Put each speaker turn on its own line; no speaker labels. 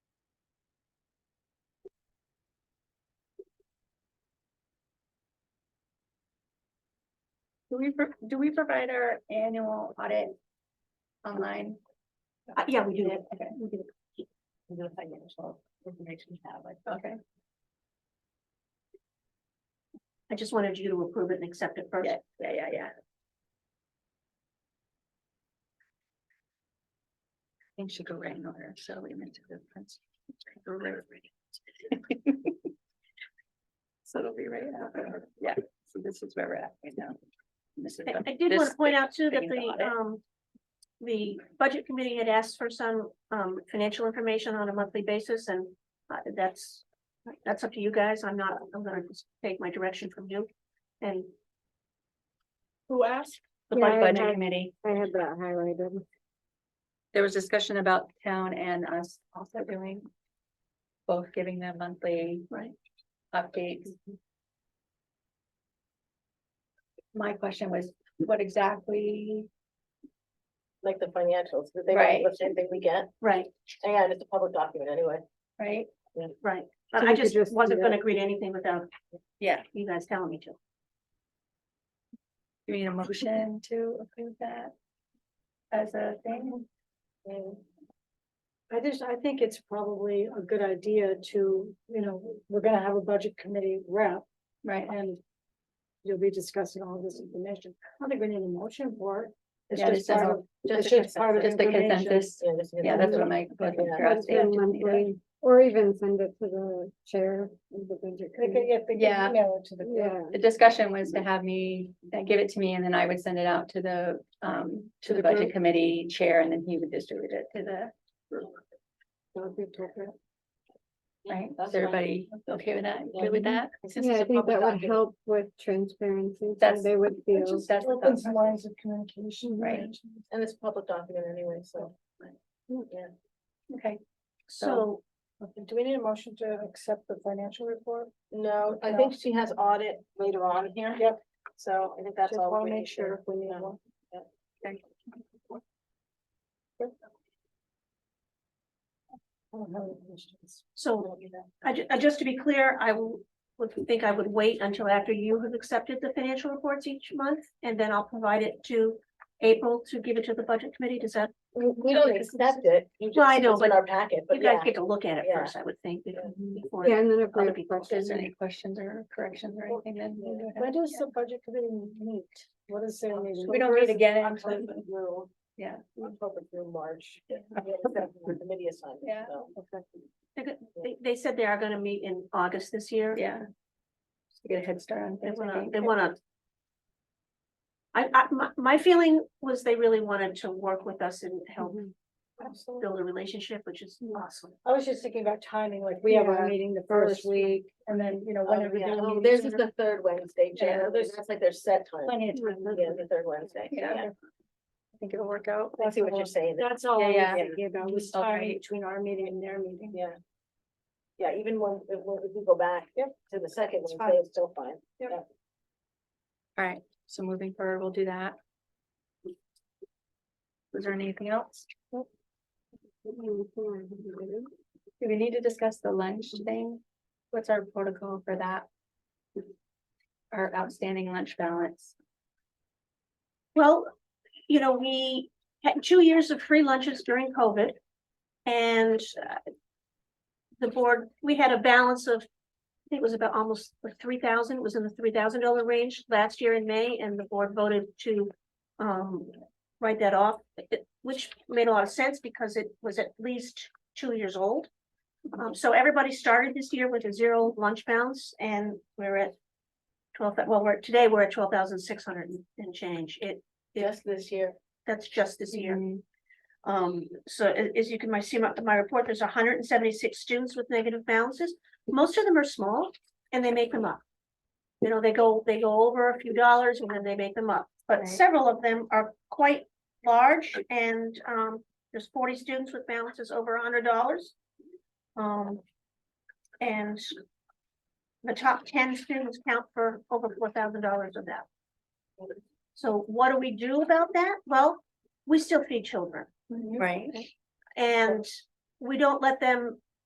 Do we, pro- do we provide our annual audit online?
Uh, yeah, we do.
Yeah, okay.
We do. We do a financial information tablet.
Okay.
I just wanted you to approve it and accept it first.
Yeah, yeah, yeah, yeah. Things should go right in order, so we meant to go first. Go right. So it'll be right after, yeah, so this is where we're at right now. This is
I,
the-
I did want
this-
to point out too that
thing about
the,
it.
um, the budget committee had asked for some, um, financial information on a monthly basis and uh, that's, that's up to you guys. I'm not, I'm gonna just take my direction from you and
Who asked?
the
Yeah, I
budget
had-
committee.
I had that highlighted.
There was discussion about town and us also doing. Both giving them monthly
Right.
updates. My question was, what exactly?
Like the financials, did they
Right.
get the same thing we get?
Right,
Yeah, it's a public document anyway.
Right?
right.
So
But
we
I
could
just
just do
wasn't
that.
gonna agree to anything without
Yeah.
you guys telling me to.
Do you need a motion to approve that? As a thing?
I just, I think it's probably a good idea to, you know, we're gonna have a budget committee rep
Right.
and. You'll be discussing all this information. I don't think we need a motion for it. It's
Yeah,
just
just as a-
part of-
Just
It's just part
the
of
just the
information.
consensus. Yeah, that's what my.
Yeah.
Or even send it to the chair of the budget.
They could
committee.
get, they could
Yeah.
email it to the.
Yeah,
The discussion was to have me, uh, give it to me and then I would send it out to the, um, to
To
the
the
budget
group.
committee chair and then he would distribute it to the,
that would be appropriate.
right?
that's
Is everybody okay with that? Good with that? Since
Yeah,
it's
I
a
think
public
that would
document.
help with transparency, so
That's-
they would
Which
feel.
is- that's the
Opens
thought
lines of communication.
Right.
And it's a public document anyway, so.
process. Okay,
So,
Do we need a motion to accept the financial report? No, I think she has audit later on here. Yep. So I think that's
Just
all.
wanna
we
make
need
sure
to-
if we need
yeah.
one.
I don't have any questions.
so I ju- uh, just to be clear, I will, would think I would wait until after you have accepted the financial reports each month, and then I'll provide it to April to give it to the budget committee, does that,
We, we don't accept it. You
Well, I
just-
know,
it's in
but
Our packet, but
you guys
yeah.
get to look at it
Yeah.
first, I would think. be- before-
Yeah, and then if we
other
have
people.
if there's
questions.
any questions or corrections or anything, then. we would have-
When does
yeah.
the budget committee meet? What is their meeting?
We don't meet again
October
until,
through-
Yeah.
October through March.
Yeah.
The committee assignment.
Yeah.
so.
They're go- They, they said they are gonna meet in August this year.
yeah. Just to Get a head start on.
They
things, I
wanna,
think.
they wanna. I, I, my, my feeling was they really wanted to work with us and help
Absolutely.
build a relationship, which is awesome.
I was just thinking about timing, like
We have
Yeah.
our meeting the first
First
week.
and then, you know,
Oh,
whenever.
yeah.
they're
Oh,
meeting
theirs
sooner.
is
the third Wednesday,
Jan.
That's like their set time.
Plenty of time.
Yeah, the third Wednesday.
Yeah. I think it'll work out.
I see what you're saying.
That's all
Yeah,
I was
yeah.
thinking about, was
Okay.
time between our meeting and their meeting.
Yeah. Yeah, even when, when we go back to the second
It's
Wednesday, it's still fine.
All right, so moving forward, we'll do that. Was there anything else? Do we need to discuss the lunch thing? What's our protocol for that? Our outstanding lunch balance.
Well, you know, we had two years of free lunches during COVID. And uh, the board, we had a balance of, I think it was about almost three thousand, it was in the three thousand dollar range last year in May, and the board voted to um, write that off, it- which made a lot of sense because it was at least two years old. Um, so everybody started this year with a zero lunch balance, and we're at twelve, well, we're, today we're at twelve thousand six hundred and change. It,
Yes, this year.
that's just this year.
Mm-hmm.
Um, so a- as you can my- see my, my report, there's hundred and seventy-six students with negative balances. Most of them are small and they make them up. You know, they go, they go over a few dollars and then they make them up, but
Right.
several of them are quite large and, um, there's forty students with balances over hundred dollars. Um, and the top ten students count for over four thousand dollars of that. So what do we do about that? Well,
Mm-hmm.
we still feed children
Right.
and we don't let them